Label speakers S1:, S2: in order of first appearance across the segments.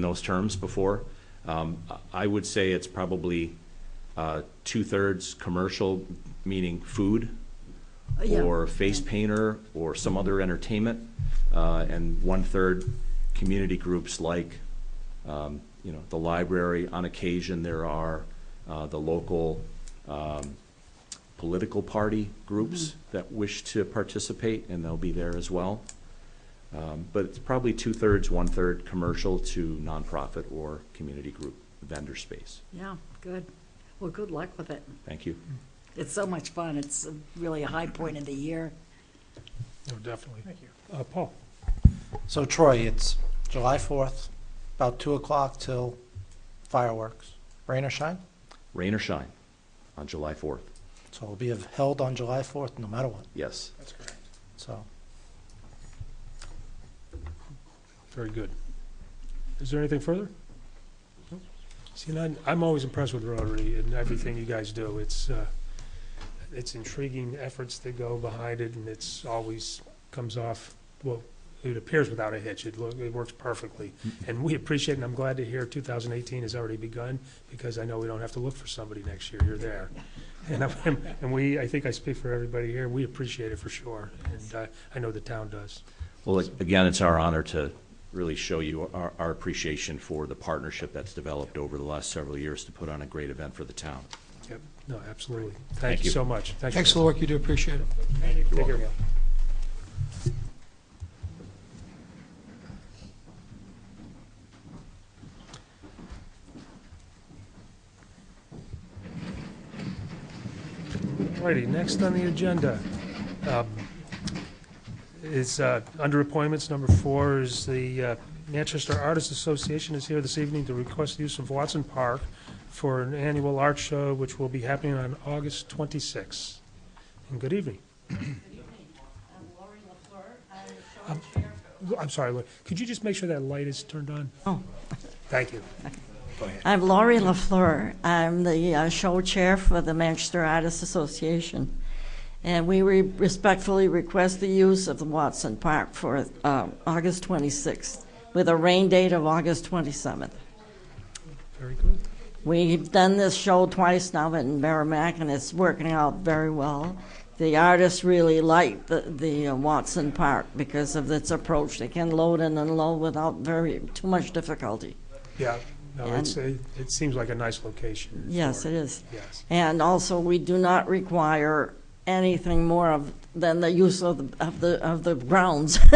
S1: in those terms before. Um, I would say it's probably uh, two-thirds commercial, meaning food,
S2: Uh, Yeah.
S1: or face painter, or some other entertainment, uh, and one-third community groups like, um, you know, the library. On occasion, there are uh, the local um, political party groups that wish to participate, and they'll be there as well. Um, But it's probably two-thirds, one-third commercial to nonprofit or community group vendor space.
S2: Yeah, good. Well, good luck with it.
S1: Thank you.
S2: It's so much fun. It's really a high point of the year.
S3: No, definitely. Thank you. Uh, Paul?
S4: So Troy, it's July 4th, about 2 o'clock till fireworks, rain or shine.
S1: Rain or shine on July 4th.
S4: So it'll be held on July 4th no matter what,
S1: Yes.
S3: That's correct.
S4: so.
S3: Very good. Is there anything further? No? See, and I'm, I'm always impressed with Rotary and everything you guys do. It's, uh, it's intriguing efforts that go behind it, and it's always comes off, well, it appears without a hitch. It look, it works perfectly. And we appreciate, and I'm glad to hear two thousand eighteen has already begun, because I know we don't have to look for somebody next year. You're there. And, I'm- and we, I think I speak for everybody here, we appreciate it for sure, and, uh, I know the town does.
S1: Well, again, it's our honor to really show you our, our appreciation for the partnership that's developed over the last several years to put on a great event for the town.
S3: Yep, no, absolutely.
S1: Thank
S3: Thank you
S1: you.
S3: so much.
S5: Thanks for the work you do, appreciate it.
S3: Take care. Alrighty, next on the agenda um, is, uh, under appointments, number four is the uh, Manchester Artists Association is here this evening to request use of Watson Park for an annual art show, which will be happening on August 26th. And good evening. I'm sorry, Lori, could you just make sure that light is turned on?
S6: Oh.
S3: Thank you.
S6: I'm Laurie LaFleur. I'm the uh, show chair for the Manchester Artists Association. And we re- respectfully request the use of the Watson Park for uh, August 26th with a rain date of August 27th.
S3: Very good.
S6: We've done this show twice now in Merrimack, and it's working out very well. The artists really like the, the uh, Watson Park because of its approach. They can load and unload without very too much difficulty.
S3: Yeah, no, it's, a- it seems like a nice location.
S6: Yes,
S3: for-
S6: it is.
S3: Yes,
S6: And also, we do not require anything more of, than the use of, the- of the, of the grounds.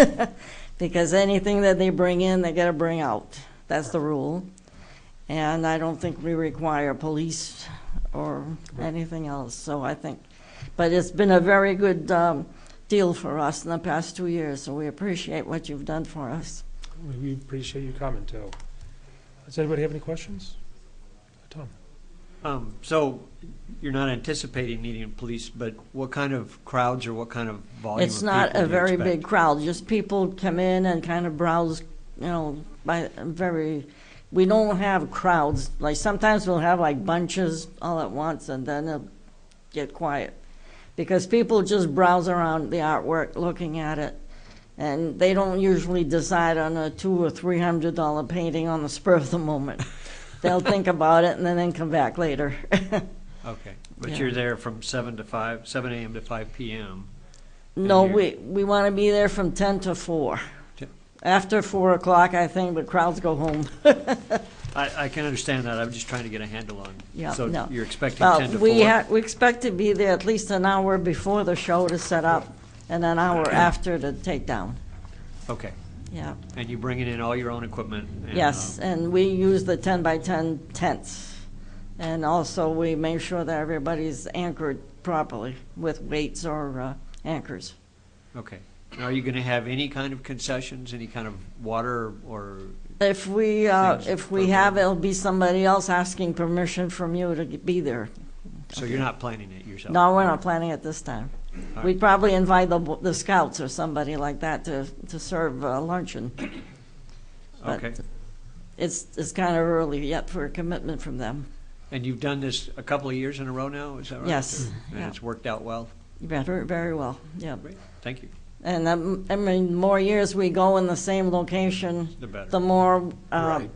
S6: Because anything that they bring in, they gotta bring out. That's the rule. And I don't think we require police or anything else, so I think. But it's been a very good, um, deal for us in the past two years, so we appreciate what you've done for us.
S3: We- we appreciate you coming, too. Does anybody have any questions? Tom?
S7: Um, so you're not anticipating needing police, but what kind of crowds or what kind of volume?
S6: It's
S7: of
S6: not
S7: people
S6: a
S7: do you
S6: very
S7: expect?
S6: big crowd, just people come in and kind of browse, you know, by, very, we don't have crowds, like, sometimes we'll have like bunches all at once, and then it'll get quiet. Because people just browse around the artwork, looking at it, and they don't usually decide on a two or three hundred dollar painting on the spur of the moment. They'll think about it and then come back later.
S7: Okay,
S6: Yeah.
S7: but you're there from seven to five, seven AM to five PM.
S6: No,
S7: And
S6: we, we want to be there from 10 to 4.
S7: Ten-
S6: After 4 o'clock, I think the crowds go home.
S7: I, I can understand that, I'm just trying to get a handle on.
S6: Yeah, no.
S7: So you're expecting
S6: Well,
S7: ten to
S6: we,
S7: four?
S6: ha- we expect to be there at least an hour before the show to set up and an hour after to take down.
S7: Okay,
S6: Yeah,
S7: and you're bringing in all your own equipment? and,
S6: yes,
S7: um,
S6: and we use the 10 by 10 tents. And also, we make sure that everybody's anchored properly with weights or uh, anchors.
S7: Okay, And are you gonna have any kind of concessions, any kind of water or,
S6: If we, uh,
S7: Things
S6: if we
S7: appropriate.
S6: have, it'll be somebody else asking permission from you to be there.
S7: so you're not planning it yourself?
S6: No, we're not planning it this time.
S7: All right.
S6: We'd probably invite the, the scouts or somebody like that to, to serve uh, luncheon. but
S7: Okay,
S6: It's, it's kind of early yet for a commitment from them.
S7: and you've done this a couple of years in a row now, is that right?
S6: Yes,
S7: And
S6: yeah.
S7: it's worked out well?
S6: Very, very well, yeah.
S7: Great, thank you,
S6: And um, I mean, more years we go in the same location,
S7: the better.
S6: the more um,
S7: Right.